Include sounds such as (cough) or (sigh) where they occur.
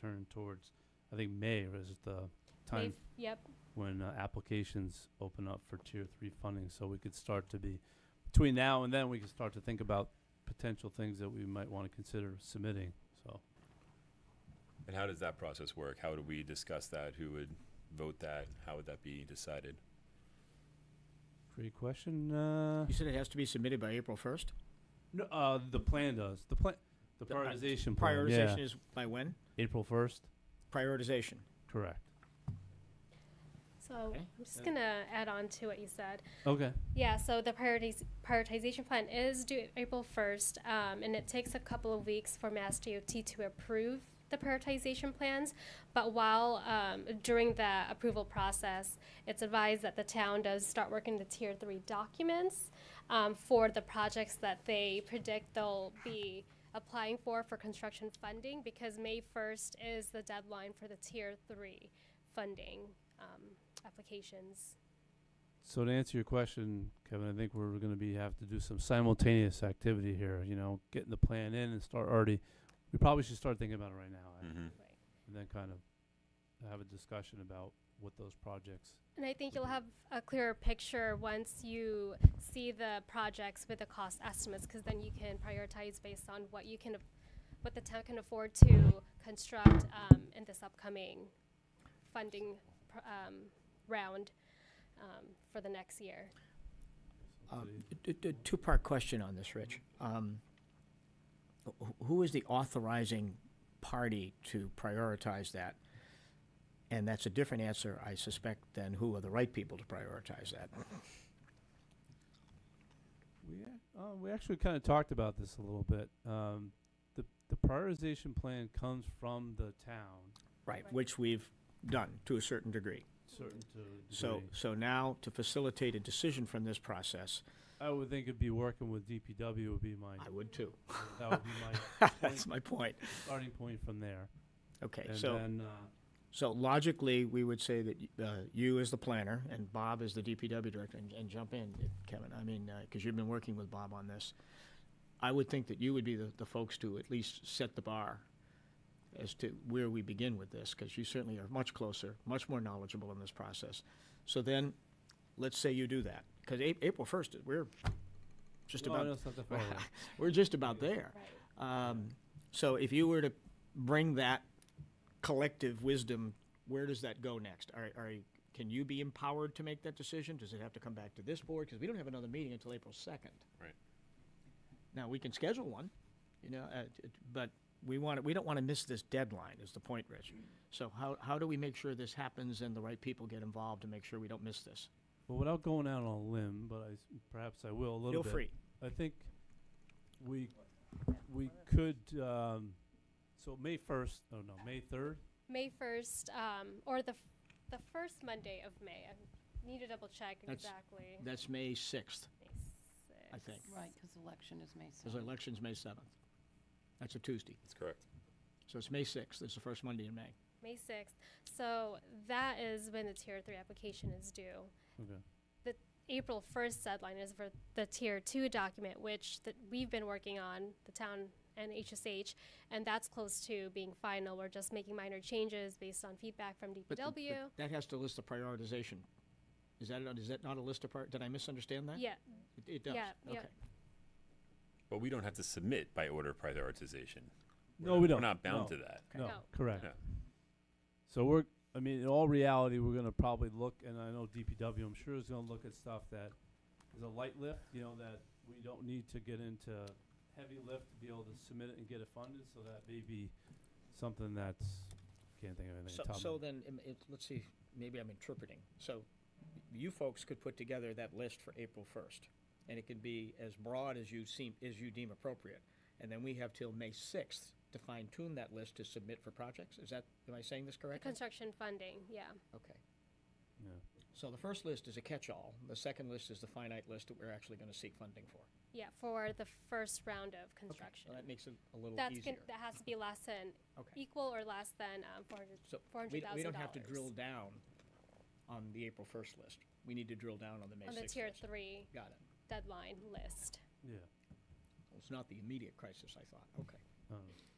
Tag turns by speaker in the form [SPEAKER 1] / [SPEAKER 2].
[SPEAKER 1] turn towards, I think May is the time
[SPEAKER 2] They've- Yep,
[SPEAKER 1] when uh, applications open up for tier three funding, so we could start to be, between now and then, we can start to think about potential things that we might want to consider submitting, so.
[SPEAKER 3] And how does that process work? How would we discuss that? Who would vote that? How would that be decided?
[SPEAKER 1] Great question, uh,
[SPEAKER 4] You said it has to be submitted by April first?
[SPEAKER 1] no, uh, the plan does, the plan, the
[SPEAKER 4] The, uh,
[SPEAKER 1] prioritization plan, yeah.
[SPEAKER 4] Prioritization is by when?
[SPEAKER 1] April first,
[SPEAKER 4] Prioritization.
[SPEAKER 1] Um, correct.
[SPEAKER 2] so
[SPEAKER 4] Okay.
[SPEAKER 2] I'm just gonna add on to what you said.
[SPEAKER 1] Okay,
[SPEAKER 2] Yeah, so the priorities, prioritization plan is due April first, um, and it takes a couple of weeks for Mass DOT to approve the prioritization plans. But while, um, during the approval process, it's advised that the town does start working the tier three documents, um, for the projects that they predict they'll be applying for, for construction funding, because May first is the deadline for the tier three funding, um, applications.
[SPEAKER 1] so to answer your question, Kevin, I think we're gonna be, have to do some simultaneous activity here, you know, getting the plan in and start already, we probably should start thinking about it right now, actually.
[SPEAKER 3] Mm-hmm.
[SPEAKER 2] Right.
[SPEAKER 1] and then kind of have a discussion about what those projects.
[SPEAKER 2] And I think you'll have a clearer picture once you see the projects with the cost estimates, because then you can prioritize based on what you can, af- what the town can afford to construct um, in this upcoming funding pr- um, round um, for the next year.
[SPEAKER 4] Um, d- d- d- Two-part question on this, Rich. Um, wh- Who is the authorizing party to prioritize that? And that's a different answer, I suspect, than who are the right people to prioritize that.
[SPEAKER 1] We, ac- uh, we actually kind of talked about this a little bit. Um, the, the prioritization plan comes from the town,
[SPEAKER 4] Right,
[SPEAKER 2] Right.
[SPEAKER 4] which we've done to a certain degree.
[SPEAKER 1] certain to a
[SPEAKER 4] So,
[SPEAKER 1] degree.
[SPEAKER 4] so now to facilitate a decision from this process,
[SPEAKER 1] I would think it'd be working with DPW would be my,
[SPEAKER 4] I would too. (laughs)
[SPEAKER 1] that would be my
[SPEAKER 4] That's my point.
[SPEAKER 1] starting point from there.
[SPEAKER 4] Okay,
[SPEAKER 1] And
[SPEAKER 4] so,
[SPEAKER 1] then, uh,
[SPEAKER 4] so logically, we would say that y- uh, you as the planner and Bob as the DPW director, and- and jump in, Kevin, I mean, because you've been working with Bob on this. I would think that you would be the, the folks to at least set the bar as to where we begin with this, because you certainly are much closer, much more knowledgeable in this process. So then, let's say you do that, because April first, we're just
[SPEAKER 1] no,
[SPEAKER 4] about
[SPEAKER 1] no, it's not that far away.
[SPEAKER 4] we're just about there. Um, so if you were to bring that collective wisdom, where does that go next? Are, are, can you be empowered to make that decision? Does it have to come back to this board? Because we don't have another meeting until April second.
[SPEAKER 3] Right.
[SPEAKER 4] Now, we can schedule one, you know, uh, t- t- but we want, we don't want to miss this deadline is the point, Rich. So how, how do we make sure this happens and the right people get involved to make sure we don't miss this?
[SPEAKER 1] Well, without going out on a limb, but I, s- perhaps I will a little
[SPEAKER 4] Feel
[SPEAKER 1] bit.
[SPEAKER 4] free.
[SPEAKER 1] I think we, we could, um, so May first, oh no, May third?
[SPEAKER 2] May first, um, or the, f- the first Monday of May, I need to double check
[SPEAKER 4] That's-
[SPEAKER 2] exactly.
[SPEAKER 4] That's May sixth,
[SPEAKER 2] May
[SPEAKER 4] I
[SPEAKER 2] 6th.
[SPEAKER 4] think,
[SPEAKER 5] Right, because election is May 7th.
[SPEAKER 4] because election's May seventh. That's a Tuesday.
[SPEAKER 3] That's correct.
[SPEAKER 4] So it's May sixth, it's the first Monday in May.
[SPEAKER 2] May sixth, so that is when the tier three application is due.
[SPEAKER 1] Okay.
[SPEAKER 2] April first deadline is for the tier two document, which that we've been working on, the town and HSH, and that's close to being final. We're just making minor changes based on feedback from
[SPEAKER 4] But- but
[SPEAKER 2] DPW.
[SPEAKER 4] That has to list the prioritization. Is that, is that not a list of prior, did I misunderstand that?
[SPEAKER 2] Yeah,
[SPEAKER 4] It- It does,
[SPEAKER 2] Yeah, yeah.
[SPEAKER 4] okay.
[SPEAKER 3] But we don't have to submit by order of prioritization. We're
[SPEAKER 1] No,
[SPEAKER 3] not-
[SPEAKER 1] we don't.
[SPEAKER 3] We're not bound
[SPEAKER 1] No.
[SPEAKER 3] to that.
[SPEAKER 4] Okay.
[SPEAKER 1] No,
[SPEAKER 2] No.
[SPEAKER 1] correct.
[SPEAKER 3] Yeah.
[SPEAKER 1] So we're, I mean, in all reality, we're gonna probably look, and I know DPW, I'm sure is gonna look at stuff that is a light lift, you know, that we don't need to get into heavy lift to be able to submit it and get it funded, so that may be something that's, can't think of anything.
[SPEAKER 4] So,
[SPEAKER 1] top of
[SPEAKER 4] so
[SPEAKER 1] my-
[SPEAKER 4] then, um, it, let's see, maybe I'm interpreting. So you folks could put together that list for April first, and it could be as broad as you seem, as you deem appropriate. And then we have till May sixth to fine tune that list to submit for projects. Is that, am I saying this
[SPEAKER 2] the
[SPEAKER 4] correctly?
[SPEAKER 2] construction funding, yeah.
[SPEAKER 4] Okay.
[SPEAKER 1] Yeah.
[SPEAKER 4] So the first list is a catch-all. The second list is the finite list that we're actually gonna seek funding for.
[SPEAKER 2] Yeah, for the first round of
[SPEAKER 4] Okay,
[SPEAKER 2] construction.
[SPEAKER 4] so That makes it a little
[SPEAKER 2] That's,
[SPEAKER 4] easier.
[SPEAKER 2] gon- that has to be less than,
[SPEAKER 4] Okay.
[SPEAKER 2] equal or less than um, four hundred,
[SPEAKER 4] So
[SPEAKER 2] four
[SPEAKER 4] we,
[SPEAKER 2] hundred
[SPEAKER 4] d-
[SPEAKER 2] thousand dollars.
[SPEAKER 4] we don't have to drill down on the April first list. We need to drill down on the May
[SPEAKER 2] On the
[SPEAKER 4] sixth
[SPEAKER 2] tier
[SPEAKER 4] list.
[SPEAKER 2] three
[SPEAKER 4] Got it.
[SPEAKER 2] deadline list.
[SPEAKER 1] Yeah.
[SPEAKER 4] It's not the immediate crisis, I thought. Okay.
[SPEAKER 1] I don't know.